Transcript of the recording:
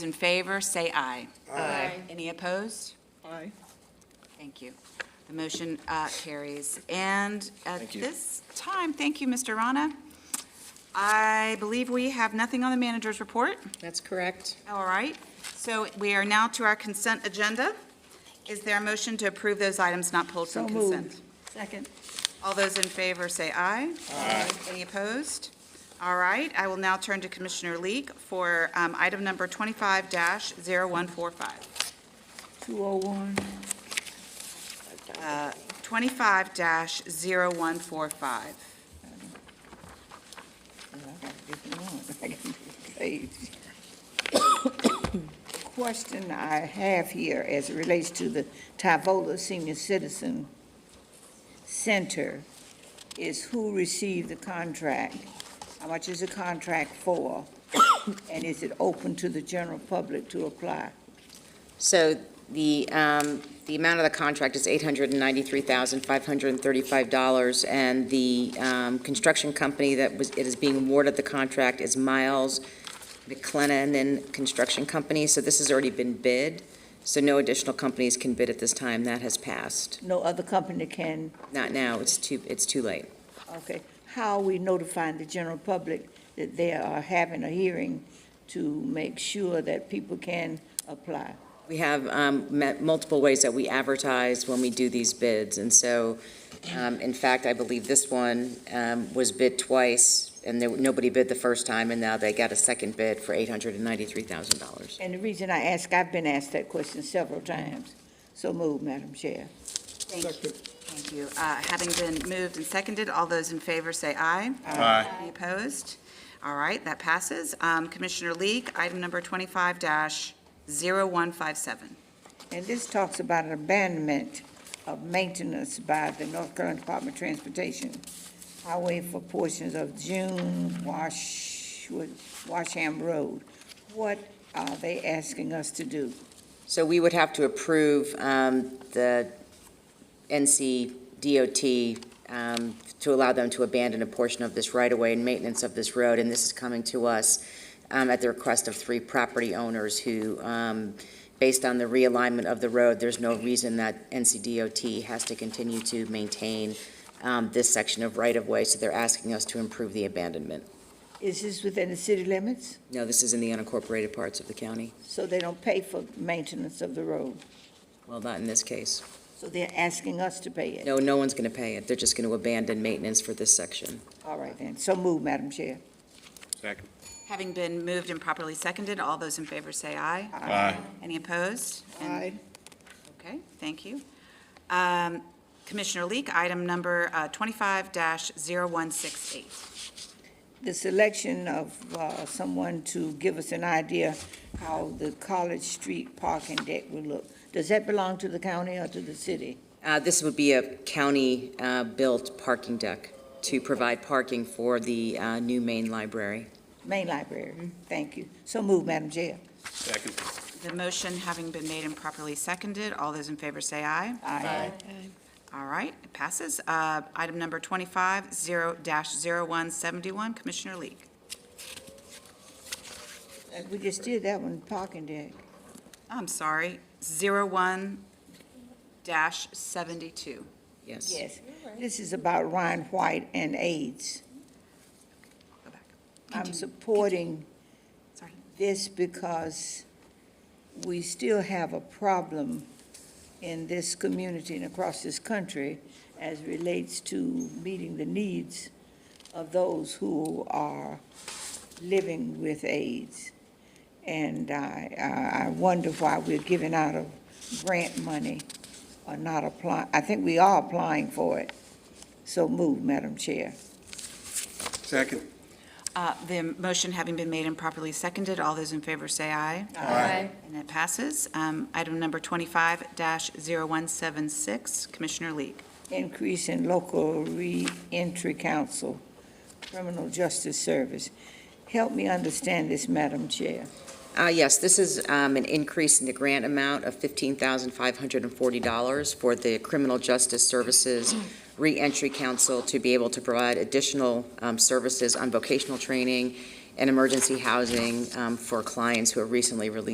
in favor, say aye. Aye. Any opposed? Aye. Thank you. The motion uh, carries. And at Thank you. this time, thank you, Mr. Rana. I believe we have nothing on the manager's report. That's correct. All right, so we are now to our consent agenda. Is there a motion to approve those items not pulled from consent? Second. All those in favor say aye. Aye. Any opposed? All right, I will now turn to Commissioner Leek for um, item number 25-0145. 201. 25-0145. Question I have here as it relates to the Tyvola Senior Citizen Center is who received the contract? How much is the contract for? And is it open to the general public to apply? So the, um, the amount of the contract is $893,535, and the um, construction company that was, it is being awarded the contract is Miles McLennan Construction Company, so this has already been bid, so no additional companies can bid at this time, that has passed. No other company can Not now, it's too, it's too late. Okay, how are we notifying the general public that they are having a hearing to make sure that people can apply? We have um, met multiple ways that we advertise when we do these bids, and so, um, in fact, I believe this one um, was bid twice, and there, nobody bid the first time, and now they got a second bid for $893,000. And the reason I ask, I've been asked that question several times. So move, Madam Chair. Thank you. Thank you. Uh, Having been moved and seconded, all those in favor say aye. Aye. Any opposed? All right, that passes. Um, Commissioner Leek, item number 25-0157. And this talks about abandonment of maintenance by the North Carolina Department of Transportation Highway for portions of June Wash, Washam Road. What are they asking us to do? So we would have to approve um, the NC DOT um, to allow them to abandon a portion of this right-of-way and maintenance of this road, and this is coming to us um, at the request of three property owners who, um, based on the realignment of the road, there's no reason that NC DOT has to continue to maintain um, this section of right-of-way, so they're asking us to improve the abandonment. Is this within the city limits? No, this is in the unincorporated parts of the county, So they don't pay for maintenance of the road? well, not in this case. So they're asking us to pay it? No, no one's going to pay it. They're just going to abandon maintenance for this section. All right then, so move, Madam Chair. Second. Having been moved and properly seconded, all those in favor say aye. Aye. Any opposed? And- Aye. Okay, thank you. Um, Commissioner Leek, item number uh, 25-0168. The selection of uh, someone to give us an idea how the College Street parking deck will look, does that belong to the county or to the city? Uh, This would be a county-built parking deck to provide parking for the uh, new main library. Main Library, thank you. So move, Madam Chair. Second. The motion having been made and properly seconded, all those in favor say aye. Aye. All right, it passes. Uh, Item number 25-0171, Commissioner Leek. Uh, We just did that one, parking deck. I'm sorry, 01-72. Yes. Yes, this is about Ryan White and AIDS. Go back, I'm supporting sorry. this because we still have a problem in this community and across this country as relates to meeting the needs of those who are living with AIDS. And I, I I wonder why we're giving out of grant money or not applying. I think we are applying for it. So move, Madam Chair. Second. Uh, The motion having been made and properly seconded, all those in favor say aye. Aye. And it passes. Um, Item number 25-0176, Commissioner Leek. increase in local reentry council, criminal justice service. Help me understand this, Madam Chair. Uh, Yes, this is um, an increase in the grant amount of $15,540 for the Criminal Justice Services Reentry Council to be able to provide additional um, services on vocational training and emergency housing um, for clients who are recently released